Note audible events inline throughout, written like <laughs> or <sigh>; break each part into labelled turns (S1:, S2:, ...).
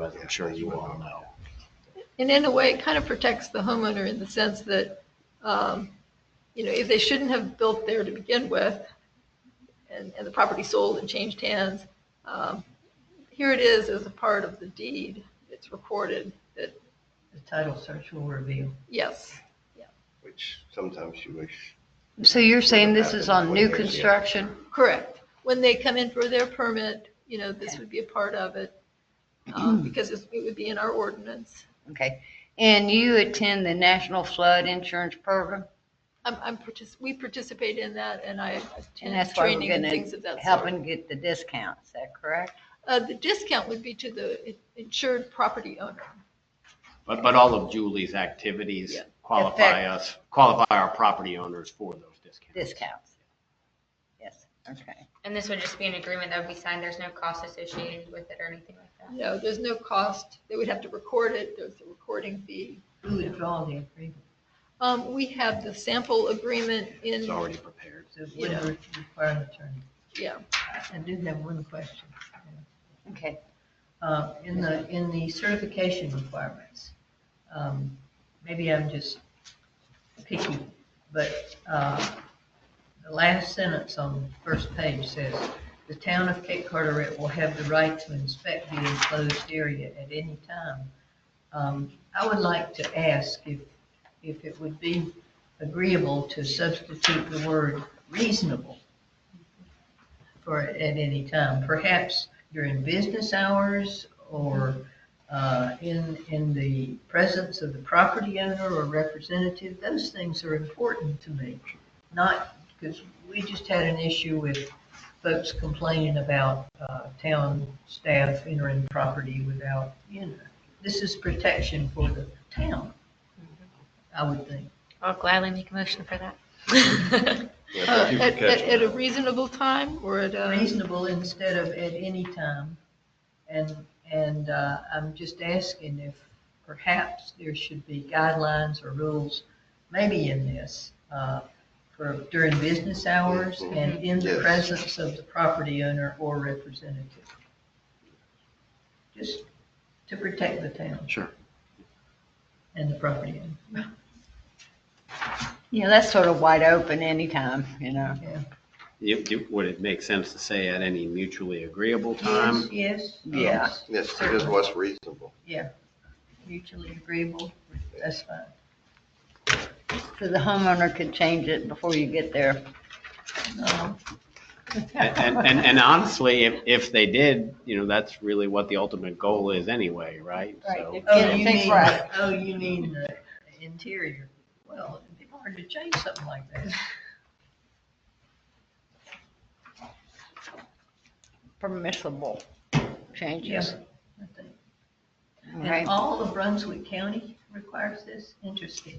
S1: but I'm sure you all know.
S2: And in a way, it kind of protects the homeowner in the sense that, um, you know, if they shouldn't have built there to begin with, and, and the property sold and changed hands, um, here it is as a part of the deed, it's recorded that,
S3: The title search will reveal.
S2: yes,
S4: which sometimes you wish.
S5: So you're saying this is on new
S4: Yeah.
S5: construction?
S2: correct. When they come in for their permit, you know, this would be a part of it,
S5: <clears throat>
S2: um, because it's- it would be in our ordinance.
S5: Okay. And you attend the National Flood Insurance Program?
S2: I'm, I'm, partic- we participate in that, and I
S5: And
S2: attend
S5: that's why we're
S2: training and
S5: going
S2: things of
S5: to
S2: that
S5: help
S2: sort.
S5: and get the discounts, is that correct?
S2: Uh, the discount would be to the in- insured property owner.
S6: But, but all of Julie's activities
S2: Yeah.
S6: qualify us, qualify our property owners for those discounts.
S5: Discounts. Yes, okay.
S7: And this would just be an agreement that would be signed. There's no cost associated with it or anything like that.
S2: No, there's no cost. They would have to record it. There's a recording fee.
S3: Who would draw the agreement?
S2: Um, we have the sample agreement in,
S6: It's already prepared.
S3: So it would re- require an attorney.
S2: yeah.
S3: I do have one question.
S5: Okay.
S3: Uh, In the, in the certification requirements, um, maybe I'm just picky, but uh, the last sentence on the first page says, "The town of Cape Carteret will have the right to inspect the enclosed area at any time." Um, I would like to ask if, if it would be agreeable to substitute the word reasonable for at any time, perhaps during business hours or uh, in, in the presence of the property owner or representative, those things are important to me. Not, because we just had an issue with folks complaining about uh, town staff entering property without, you know, this is protection for the town, I would think.
S7: I'll gladly make a motion for that. <laughs>
S4: Yeah,
S2: Uh,
S4: thank you for
S2: At, at
S4: catching
S2: at a
S4: that.
S2: reasonable time or at uh, a,
S3: reasonable instead of at any time. And, and uh, I'm just asking if perhaps there should be guidelines or rules, maybe in this, uh, for during business hours and in the
S4: Yes.
S3: presence of the property owner or representative. Just to protect the town
S6: Sure.
S3: and the property owner.
S5: Yeah, that's sort of wide open anytime, you know?
S3: Yeah.
S6: It- it- Would it make sense to say at any mutually agreeable time?
S3: Yes.
S5: Yeah.
S3: yes,
S4: Yes, it is what's reasonable.
S3: Mutually agreeable, that's fine.
S5: So the homeowner could change it before you get there.
S3: No,
S6: And, and- and, and honestly, if, if they did, you know, that's really what the ultimate goal is anyway, right? So-
S5: Right.
S3: Oh,
S5: Get
S3: you
S5: it fixed
S3: mean,
S5: right.
S3: oh, you mean the interior. Well, it'd be hard to change something like that.
S5: Permissible changes,
S3: Yes. I think.
S5: right?
S3: And all of Brunswick County requires this? Interesting.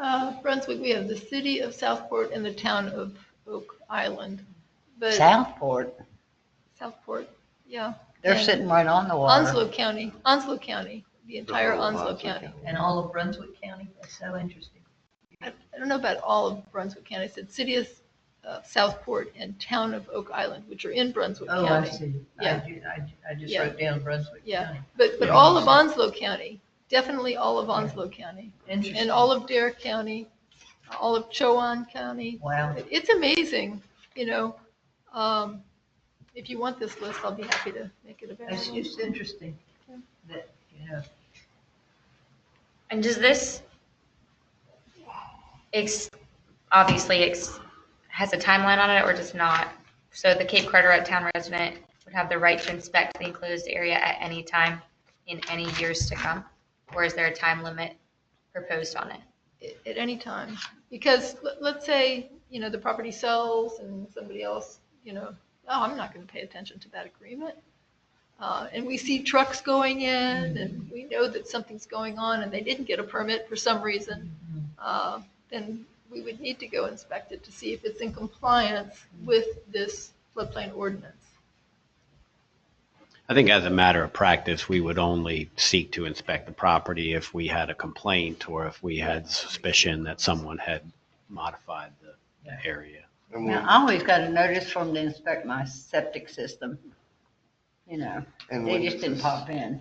S2: uh, Brunswick, we have the city of Southport and the town of Oak Island. But
S5: Southport,
S2: Southport, yeah.
S5: they're
S2: And
S5: sitting right on the water.
S2: Onslow County, Onslow County, the entire
S4: whole
S2: Onslow
S4: Onslow
S2: County.
S3: And all of Brunswick County? That's so interesting.
S2: I I don't know about all of Brunswick County. I said city of uh, Southport and town of Oak Island, which are in Brunswick
S3: Oh, I
S2: County.
S3: see.
S2: Yeah.
S3: I ju- I, ju- I just
S2: Yeah.
S3: wrote down Brunswick
S2: Yeah.
S3: County.
S2: But, but
S6: Yeah.
S2: all of Onslow County, definitely all of Onslow County,
S3: Interesting.
S2: and all of Dare County, all of Chowan County.
S3: Wow.
S2: It- It's amazing, you know. Um, If you want this list, I'll be happy to make it
S3: That's
S2: available.
S3: just interesting that, you know,
S7: and does this ex- obviously ex- has a timeline on it or does not? So the Cape Carteret town resident would have the right to inspect the enclosed area at any time in any years to come, or is there a time limit proposed on it?
S2: at- at any time. Because let- let's say, you know, the property sells and somebody else, you know, oh, I'm not going to pay attention to that agreement. Uh, And we see trucks going in and we know that something's going on and they didn't get a permit for some reason. uh, Then we would need to go inspect it to see if it's in compliance with this floodplain ordinance.
S6: I think as a matter of practice, we would only seek to inspect the property if we had a complaint or if we had suspicion that someone had modified the the area.
S4: And
S5: Now,
S4: we'll-
S5: I always got a notice from them to inspect my septic system. you know,
S4: And
S5: they
S4: when
S5: just
S4: does
S5: didn't
S4: this-
S5: pop in.